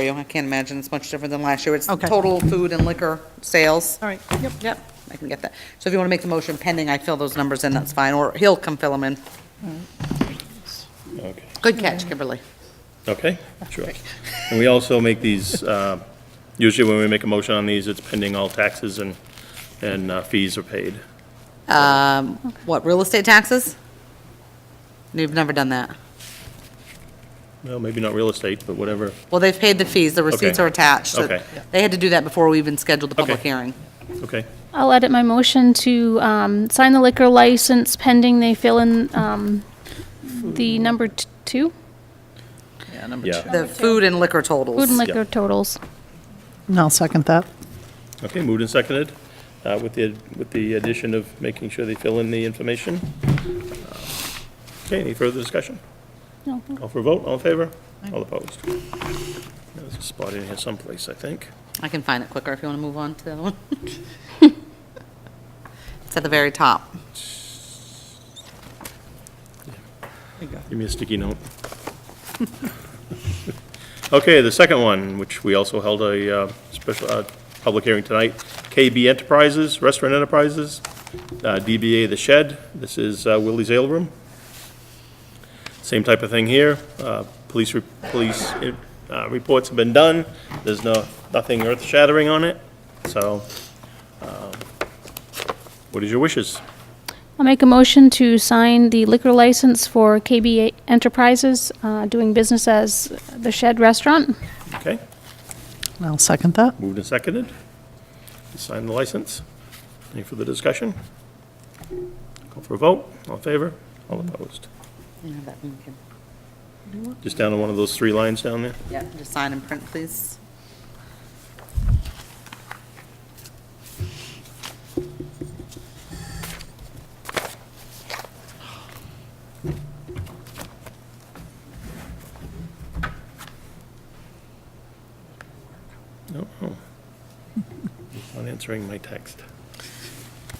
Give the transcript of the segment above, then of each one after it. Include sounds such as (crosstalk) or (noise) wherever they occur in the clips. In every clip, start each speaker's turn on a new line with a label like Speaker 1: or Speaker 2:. Speaker 1: for you. I can't imagine it's much different than last year. It's
Speaker 2: Okay.
Speaker 1: total food and liquor sales.
Speaker 2: All right, yep,
Speaker 1: Yep, I can get that. So if you want to make the motion pending, I fill those numbers in, that's fine, or he'll come fill them in.
Speaker 3: Okay,
Speaker 1: Good catch, Kimberly.
Speaker 3: okay, sure. And we also make these, uh, usually when we make a motion on these, it's pending all taxes and, and uh, fees are paid.
Speaker 1: Um, What, real estate taxes? You've never done that.
Speaker 3: Well, maybe not real estate, but whatever.
Speaker 1: Well, they've paid the fees, the receipts
Speaker 3: Okay.
Speaker 1: are attached. so
Speaker 3: Okay.
Speaker 1: They had to do that before we even scheduled the public
Speaker 3: Okay.
Speaker 1: hearing.
Speaker 3: Okay,
Speaker 4: I'll edit my motion to um, sign the liquor license pending they fill in um, the number t- two,
Speaker 2: yeah, number two.
Speaker 3: yeah.
Speaker 1: The food and liquor
Speaker 4: food and
Speaker 1: totals.
Speaker 4: liquor totals.
Speaker 2: And I'll second that.
Speaker 3: Okay, moved and seconded, uh, with the, with the addition of making sure they fill in the information. Uh, Okay, any further discussion?
Speaker 4: No.
Speaker 3: Call for a vote, all in favor? All opposed? There's a spot in here someplace, I think.
Speaker 1: I can find it quicker if you want to move on to the other one. It's at the very top.
Speaker 3: Give me a sticky note. Okay, the second one, which we also held a uh, special, uh, public hearing tonight, KB Enterprises, Restaurant Enterprises, uh, DBA The Shed, this is uh, Willie's Ale Room. Same type of thing here, Uh, police, re- police uh, reports have been done, there's no, nothing earth-shattering on it, so, um, what is your wishes?
Speaker 4: I'll make a motion to sign the liquor license for KB Enterprises, uh, doing business as the Shed Restaurant.
Speaker 3: Okay?
Speaker 2: And I'll second that.
Speaker 3: Moved and seconded. Sign the license. Any further discussion? Call for a vote. All in favor? All opposed?
Speaker 1: You have that one, Kim.
Speaker 3: Just down to one of those three lines down there.
Speaker 1: Yeah, just sign and print, please.
Speaker 3: No, no. (laughs) Not answering my text.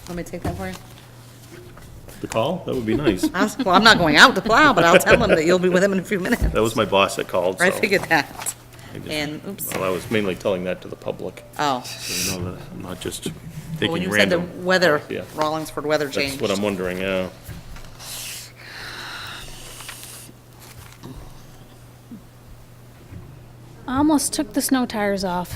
Speaker 1: Let me to take that for you.
Speaker 3: The call? That would be nice.
Speaker 1: I was- Well, I'm not going out to plow, but I'll tell them that you'll be with them in a few minutes. (laughs)
Speaker 3: That was my boss that called, so.
Speaker 1: I figured that.
Speaker 3: I just-
Speaker 1: And, oops,
Speaker 3: Well, I was mainly telling that to the public,
Speaker 1: oh.
Speaker 3: so you know that I'm not just
Speaker 1: Well, When
Speaker 3: taking
Speaker 1: you said the
Speaker 3: random.
Speaker 1: weather,
Speaker 3: Yeah.
Speaker 1: Rollingsford weather
Speaker 3: That's
Speaker 1: changed.
Speaker 3: what I'm wondering, yeah.
Speaker 4: Almost took the snow tires off.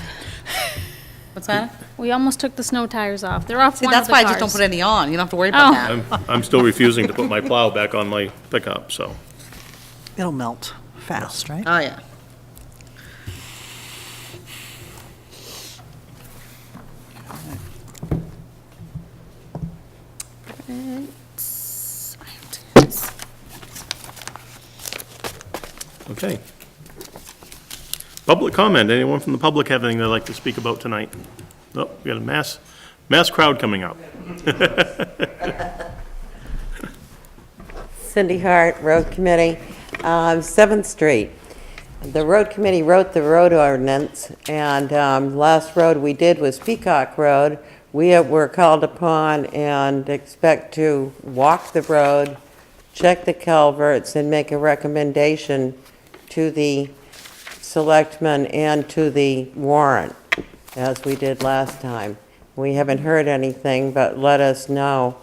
Speaker 1: What's that?
Speaker 4: We almost took the snow tires off. They're off
Speaker 1: See,
Speaker 4: one of
Speaker 1: that's
Speaker 4: the
Speaker 1: why I just don't put
Speaker 4: cars.
Speaker 1: any on. You don't have to worry about
Speaker 4: Oh.
Speaker 1: that.
Speaker 3: I'm, I'm still refusing to put my plow back on my pickup, so.
Speaker 2: It'll melt fast, right?
Speaker 1: Oh, yeah. It's- I have to do this.
Speaker 3: Okay. Public comment, anyone from the public have anything they'd like to speak about tonight? Oh, we got a mass, mass crowd coming up.
Speaker 5: Cindy Hart, Road Committee, um, 7th Street. The Road Committee wrote the road ordinance, and um, last road we did was Peacock Road. We were called upon and expect to walk the road, check the culverts, and make a recommendation to the selectmen and to the warrant, as we did last time. We haven't heard anything, but let us know.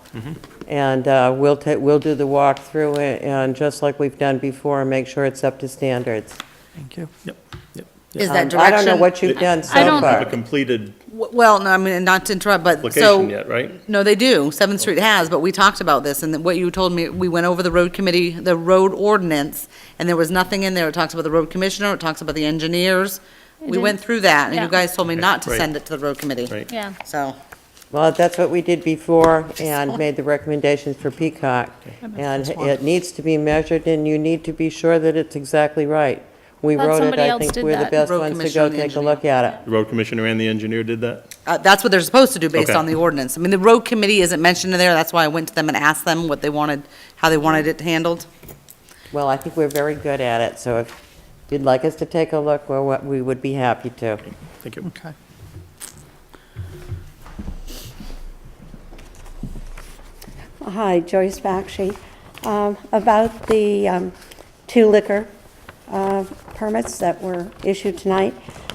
Speaker 5: And uh, we'll ta, we'll do the walkthrough, a- and just like we've done before, make sure it's up to standards.
Speaker 2: Thank you.
Speaker 3: Yep, yep.
Speaker 1: Is that
Speaker 5: Um, I don't know
Speaker 1: direction-
Speaker 5: what you've done so
Speaker 4: I don't-
Speaker 3: Have a
Speaker 5: far.
Speaker 3: completed
Speaker 1: W- Well, no, I mean, not to interrupt, but so.
Speaker 3: application yet, right?
Speaker 1: No, they do. Seventh Street has, but we talked about this, and what you told me, we went over the road committee, the road ordinance, and there was nothing in there. It talks about the road commissioner, it talks about the engineers. We went through that, and you
Speaker 4: Yeah.
Speaker 1: guys told me not to
Speaker 3: Right.
Speaker 1: send it to the road committee.
Speaker 3: Right.
Speaker 4: Yeah.
Speaker 1: So,
Speaker 5: Well, that's what we did before, and made the recommendations for Peacock. And
Speaker 2: one.
Speaker 5: it needs to be measured, and you need to be sure that it's exactly right. We
Speaker 4: Thought
Speaker 5: wrote it,
Speaker 4: somebody
Speaker 5: I
Speaker 4: else
Speaker 5: think
Speaker 4: did
Speaker 5: we're the
Speaker 4: that.
Speaker 5: best
Speaker 1: Road
Speaker 5: ones to
Speaker 1: commissioner
Speaker 5: go
Speaker 1: and the
Speaker 5: take a
Speaker 1: engineer.
Speaker 5: look at it.
Speaker 3: The road commissioner and the engineer did that?
Speaker 1: uh, that's what they're supposed to do based
Speaker 3: Okay.
Speaker 1: on the ordinance. I mean, the road committee isn't mentioned in there, that's why I went to them and asked them what they wanted, how they wanted it handled.
Speaker 5: Well, I think we're very good at it, so if you'd like us to take a look, well, what- we would be happy to.
Speaker 3: Thank you.
Speaker 2: Okay.
Speaker 6: Hi, Joyce Bakshi. Um, About the um, two liquor uh, permits that were issued tonight.